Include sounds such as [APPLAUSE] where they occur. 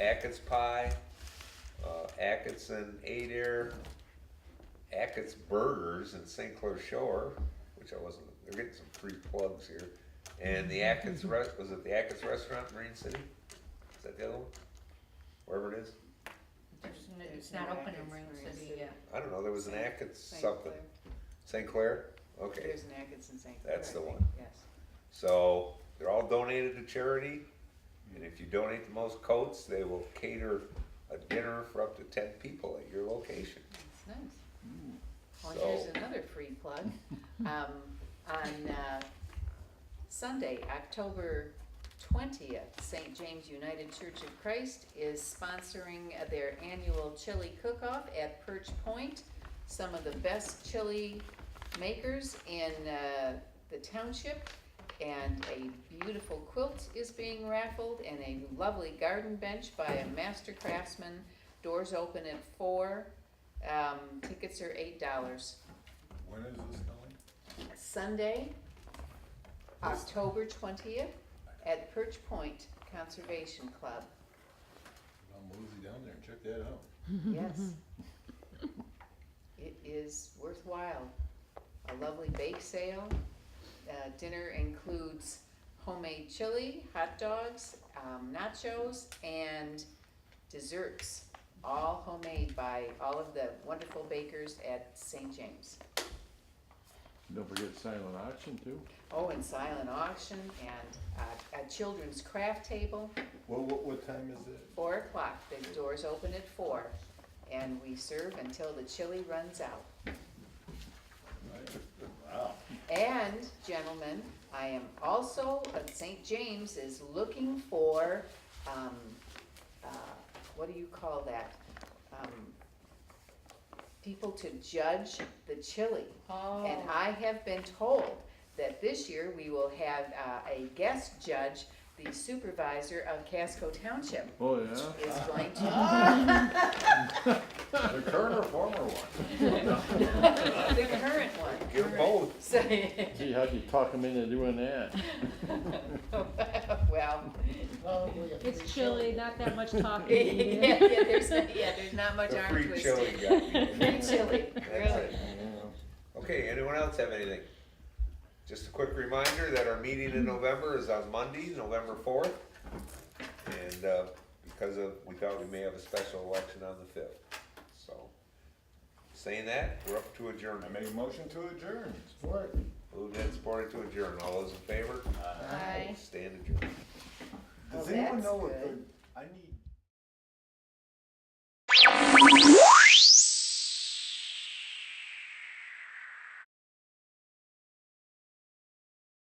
Atkins Pie, uh, Atkinson Adair, Atkins Burgers in St. Clair Shore, which I wasn't, they're getting some free plugs here. And the [LAUGHS] Atkins Rest, was it the Atkins Restaurant in Marine City? Is that the other one? Wherever it is? There's n- There's It's not no open in Atkins Marine Marine City City. yet. I don't know, there was an Saint- Atkins St. something. Clair. St. Clair? Okay, There's an Atkinson St. Clair. That's I the think, one. Yes. so they're all donated to charity. And if you donate the most coats, they will cater a dinner for up to ten people at your location. That's nice. Well, So, here's another free plug. Um, on, uh, Sunday, October twentieth, Saint James United Church of Christ is sponsoring uh, their annual chili cook-off at Perch Point. Some of the best chili makers in, uh, the township. And a beautiful quilt is being raffled and a lovely garden bench by a master craftsman. Doors open at four. Um, tickets are eight dollars. When is this going? Sunday, October twentieth, at Perch Point Conservation Club. I'll mosey down there and check that out. Yes. It is worthwhile. A lovely bake sale. Uh, dinner includes homemade chili, hot dogs, um, nachos, and desserts, all homemade by all of the wonderful bakers at St. James. Don't forget silent auction too. Oh, and silent auction and uh, a children's craft table, What, what, what time is it? four o'clock, the doors open at four. And we serve until the chili runs out. Wow. And gentlemen, I am also, uh, St. James is looking for, um, uh, what do you call that? Um, People to judge the chili. And Oh, I have been told that this year we will have uh, a guest judge, the supervisor of Casco Township Oh, yeah? is going to, The current or former one? [LAUGHS] the current one. Give them both. So, [LAUGHS] Gee, how'd you talk him into doing that? well, [LAUGHS] It's chilly, not that much yeah, talking. yeah, there's, yeah, there's not much The arm free chili twisting. guy. [LAUGHS] Free chili, That's really. it. Okay, anyone else have anything? Just a quick reminder that our meeting in November is on Monday, November fourth. And, uh, because of, we thought we may have a special election on the fifth, so. Saying that, we're up to I adjournment. make a motion to adjourn. Moved and supported to adjourn. All those in favor? Aye. Stand adjourned. Oh, Does anyone that's know if, good. the- I need